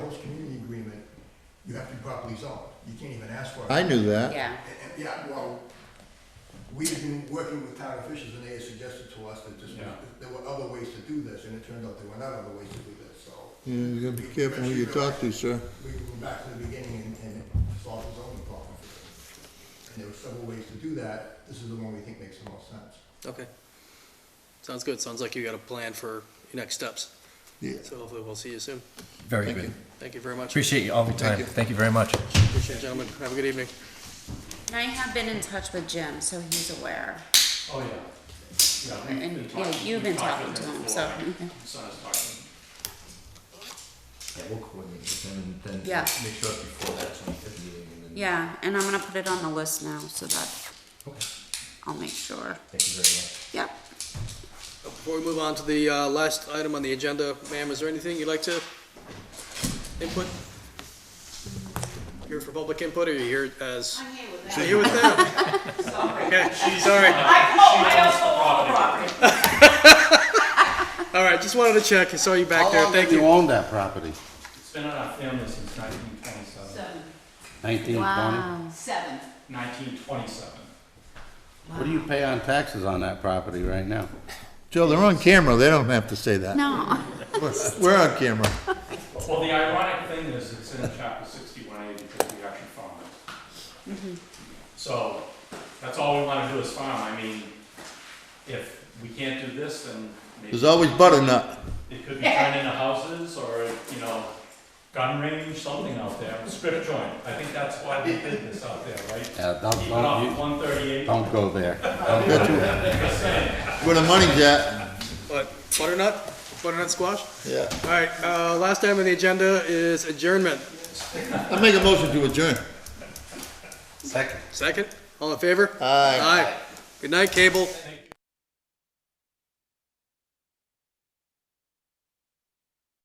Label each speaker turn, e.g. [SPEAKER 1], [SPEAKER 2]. [SPEAKER 1] property's owned, you can't even ask for it.
[SPEAKER 2] I knew that.
[SPEAKER 3] yeah.
[SPEAKER 1] And- and, Yeah, well, we've been working with town officials and they had suggested to us that this,
[SPEAKER 4] Yeah.
[SPEAKER 1] there were other ways to do this, and it turned out there were not other ways to do this, so.
[SPEAKER 2] Yeah, You gotta be careful who you talk to, sir.
[SPEAKER 1] We can go back to the beginning and, and solve the zoning problem. And there were several ways to do that, this is the one we think makes the most sense.
[SPEAKER 5] Okay. Sounds good. Sounds like you got a plan for your next steps.
[SPEAKER 2] Yeah.
[SPEAKER 5] So hopefully we'll see you soon.
[SPEAKER 6] Very good.
[SPEAKER 5] Thank you very much.
[SPEAKER 6] Appreciate you all your time. Thank you very much.
[SPEAKER 5] Appreciate it, gentlemen. Have a good evening.
[SPEAKER 3] And I have been in touch with Jim, so he's aware.
[SPEAKER 4] Oh, yeah. Yeah, we've
[SPEAKER 3] And,
[SPEAKER 4] been
[SPEAKER 3] yeah, you've
[SPEAKER 4] talking- we've
[SPEAKER 3] been
[SPEAKER 4] talked
[SPEAKER 3] talking
[SPEAKER 4] with
[SPEAKER 3] to him,
[SPEAKER 4] before.
[SPEAKER 3] so,
[SPEAKER 4] My
[SPEAKER 3] okay.
[SPEAKER 4] Son is talking.
[SPEAKER 7] Yeah, we'll coordinate with them and then
[SPEAKER 3] Yeah.
[SPEAKER 7] make sure it's before that twenty-fifth meeting and then.
[SPEAKER 3] Yeah, and I'm gonna put it on the list now, so that
[SPEAKER 7] Okay,
[SPEAKER 3] I'll make sure.
[SPEAKER 7] thank you very much.
[SPEAKER 3] Yep.
[SPEAKER 5] Before we move on to the uh, last item on the agenda, ma'am, is there anything you'd like to input? Here for public input, or you here as? I'm here with them. You're here with them? Okay, sorry. All right, just wanted to check. I saw you back
[SPEAKER 8] How
[SPEAKER 5] there.
[SPEAKER 8] long
[SPEAKER 5] Thank
[SPEAKER 8] have Oh, you
[SPEAKER 5] you.
[SPEAKER 8] owned that property?
[SPEAKER 4] It's been on our family since nineteen twenty-seven.
[SPEAKER 9] Seven,
[SPEAKER 8] Nineteen twenty?
[SPEAKER 3] Wow.
[SPEAKER 9] seven.
[SPEAKER 4] Nineteen twenty-seven.
[SPEAKER 8] What do you pay on taxes on that property right now?
[SPEAKER 2] Joe, they're on camera, they don't have to say that.
[SPEAKER 3] No.
[SPEAKER 2] We're on camera.
[SPEAKER 4] Well, the ironic thing is, it's in chapter sixty-one A because we actually farm it.
[SPEAKER 3] Mm-hmm.
[SPEAKER 4] So, that's all we wanna do is farm, I mean, if we can't do this, then maybe
[SPEAKER 2] There's always butternut.
[SPEAKER 4] it could be turned into houses, or, you know, gun range, something out there, strip joint, I think that's why they did this out there, right?
[SPEAKER 8] Yeah, don't,
[SPEAKER 4] Keep it
[SPEAKER 8] don't,
[SPEAKER 4] off
[SPEAKER 8] you,
[SPEAKER 4] one thirty-eight,
[SPEAKER 8] don't go there. Don't go there.
[SPEAKER 2] Where the money's at.
[SPEAKER 5] But butternut, butternut squash?
[SPEAKER 2] Yeah.
[SPEAKER 5] All right, uh, last item on the agenda is adjournment.
[SPEAKER 2] I make a motion to adjourn.
[SPEAKER 8] Second.
[SPEAKER 5] Second, all in favor?
[SPEAKER 2] Aye.
[SPEAKER 5] Aye. Good night, Cable.
[SPEAKER 4] I think